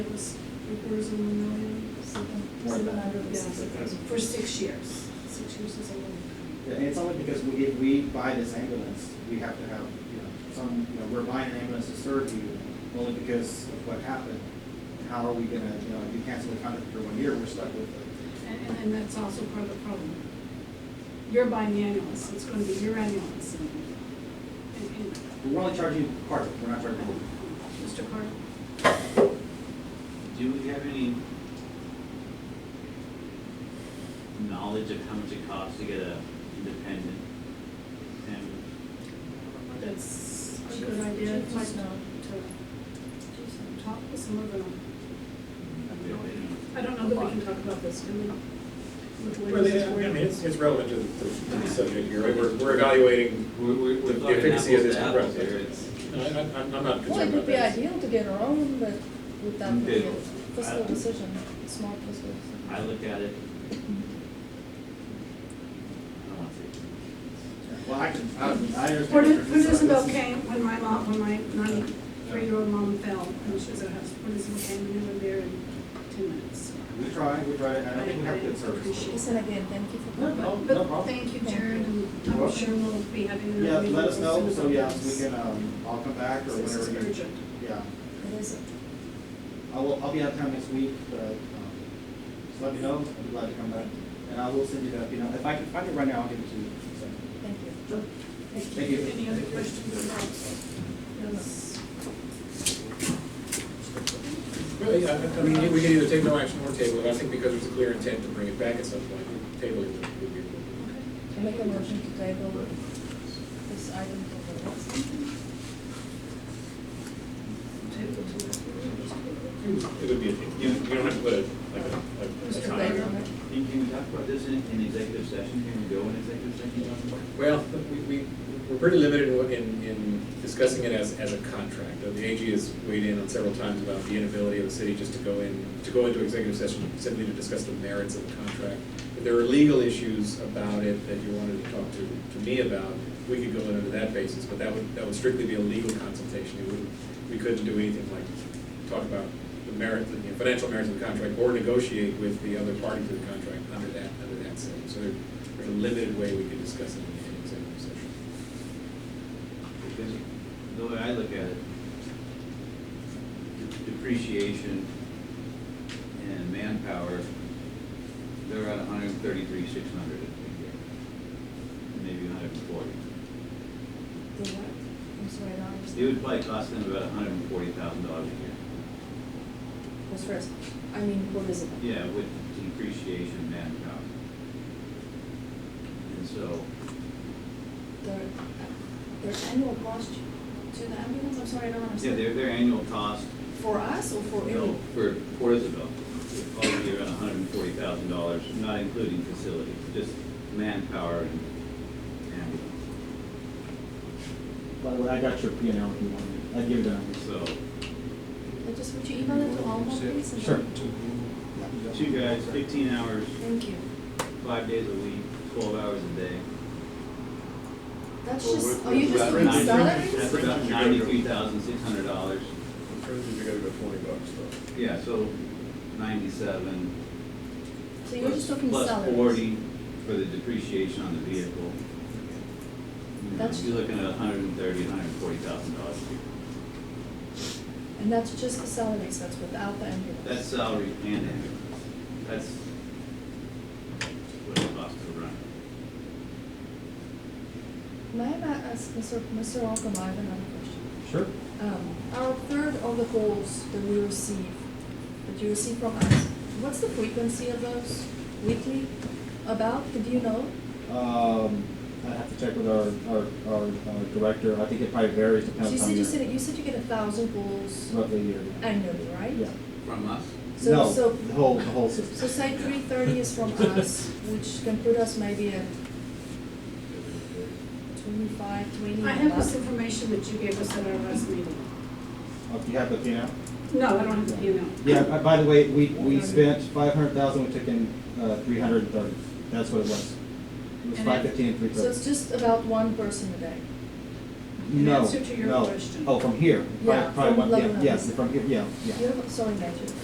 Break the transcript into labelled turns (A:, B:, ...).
A: It was three quarters of a million, something,
B: More than
A: seven
B: that.
A: hundred,
B: Yes.
A: yeah, for six years. Six years is a long time.
B: And it's only because we, if we buy this ambulance, we have to have, you know, some, you know, we're buying an ambulance to serve you only because of what happened. How are we gonna, you know, if you cancel the contract for one year, we're stuck with it.
A: And, and then that's also part of the problem. You're buying the ambulance, so it's gonna be your ambulance. and- and- and-
B: We're only charging you part, of it, we're not charging. you.
A: Mr. Carter,
C: Do we have any knowledge of how much it costs to get a independent? And
A: that's a good idea,
D: Chief
A: like,
D: is not.
A: to, to talk with some of them.
C: we don't, you know,
A: I don't know that we can talk about this, can we? With the way
E: Well,
A: this is
E: yeah, I mean,
A: worded.
E: it's, it's relevant to the, to the subject here, right? We're, we're evaluating,
C: we, we,
E: The
C: we're talking
E: efficacy of
C: apples
E: this
C: to apples
E: program.
C: here, it's.
E: I, I- I'm I'm not
D: Well, it
E: concerned
D: would
E: about
D: be
E: that.
D: ideal to get our own, but would that be
C: Okay. Uh,
D: a fiscal decision, small fiscal decision?
C: I look at it. I don't want to.
B: Well, I can, I don't- I understand.
A: What
B: what
A: is,
B: you're
A: what is
B: concerned.
A: about
B: This is-
A: Kane, when my mom, when my ninety-three-year-old mom fell, and she was at house, what is about Kane, we were there in two minutes.
B: We try, we try, and I don't think we have good
A: Appreciate
B: service.
D: Listen again, thank you for
B: No,
D: coming.
B: no, no
A: But
B: problem.
A: thank you,
D: Thank
A: Jared,
D: you.
A: and
B: You're
A: I'm
B: welcome.
A: sure we'll be having another
B: Yeah,
A: meeting
B: let us
A: as
B: know,
A: soon as
B: so
A: I
B: yeah,
A: can.
B: we can, um, I'll come back or
A: This is
B: whenever you.
A: urgent.
B: Yeah,
D: It is,
B: I will, I'll be out of town next week, but, um, just let me know, I'd be glad to come back. And I will send you that, you know, if I can find it right now, I'll give it to you. So,
D: thank you.
B: Sure.
D: Thank
B: Thank you.
A: Any other questions about this?
E: Well, yeah, I- I mean, we can either take no action or table it, I think because there's a clear intent to bring it back at some point, table it would be.
D: I'll Make a motion to table this item for the next meeting.
A: Table to next meeting.
E: It would be, a- you, you don't have to put a, like a, like a
D: Mr.
E: time.
D: Baker,
C: And can we talk about this in, in executive session? Can we go in executive session?
E: Well, we, we, we're pretty limited in, what- in, in discussing it as, as a contract. Uh, The AG has weighed in on several times about the inability of the city just to go in, to go into executive session simply to discuss the merits of the contract. If there are legal issues about it that you wanted to talk to, to me about, we could go in under that basis, but that would, that would strictly be a legal consultation. It wouldn't, we couldn't do anything like talk about the merit, the financial merits of the contract or negotiate with the other party to the contract under that, under that setting. So there- there's a limited way we can discuss it in an executive session.
C: Because the way I look at it, de- depreciation and manpower, they're at hundred and thirty-three, six hundred a year. Maybe hundred and forty.
D: The what? I'm sorry, I
C: It
D: don't understand.
C: would uh, probably cost them about hundred and forty thousand dollars a
D: What's first? I mean, what is it?
C: year. Yeah, with depreciation, manpower. And so,
D: Their, uh, their annual cost to the ambulance, I'm sorry, I don't
C: yeah,
D: understand.
C: their, their annual cost,
D: For us or for
C: you know,
D: any?
C: for Port Isabel, is probably around hundred and forty thousand dollars, not including facilities, just manpower and ambulance.
B: By the way, I got your P and L if you want it. I'd give it down.
C: So,
D: I just, would you email it to Alma, please? and-
B: Sure.
C: two guys, fifteen hours,
D: Thank you.
C: five days a week, twelve hours a day.
D: That's
C: Well,
D: just,
C: we're-
D: are you
C: we're
D: just
C: about
D: doing
C: ninety-
D: salaries?
C: That's about ninety-three thousand, six hundred dollars.
F: Fringes are gonna go twenty bucks though.
C: Yeah, so ninety-seven.
D: So you're just talking
C: plus-
D: salaries?
C: Plus forty for the depreciation on the vehicle. You know,
D: That's-
C: You're looking at a hundred and thirty, hundred and forty thousand dollars.
D: And that's just the salaries, that's without the ambulance?
C: That's salary and ambulance. That's what it costs to run.
D: May I ma- ask Mr. Mr. Alcom, I have another question.
B: Sure.
D: Um, Our third of the calls that we receive, that you receive from us, what's the frequency of those weekly about, do you know?
B: Um, I'd have to check with our, our, our uh, director. I think it probably varies
D: So you
B: depending on
D: said, you said,
B: your,
D: you said you get a thousand calls
B: roughly a year.
D: annually, right?
B: Yeah.
C: From us?
D: So-
B: No,
D: so-
B: the whole, the whole
D: So
B: system.
D: say three thirty is from us, which can put us maybe at twenty-five, twenty.
A: I have this information that you gave us at our last meeting.
B: Uh, Do you have the P and L?
A: No, I don't have the P
B: Yeah, b- by the way, we, we spent five hundred thousand, we took in, uh, three hundred and thirty. That's what it was. It was
A: And
B: five fifteen and three
D: So
B: thirty.
D: it's just about one person a day?
A: In
B: No,
A: answer to your
B: no.
A: question.
B: Oh, from here?
D: Yeah,
B: Probably- probably
D: from
B: one- yeah,
D: Lebanon.
B: Yes, from here, yeah, yeah.
D: You have, sorry, Matthew.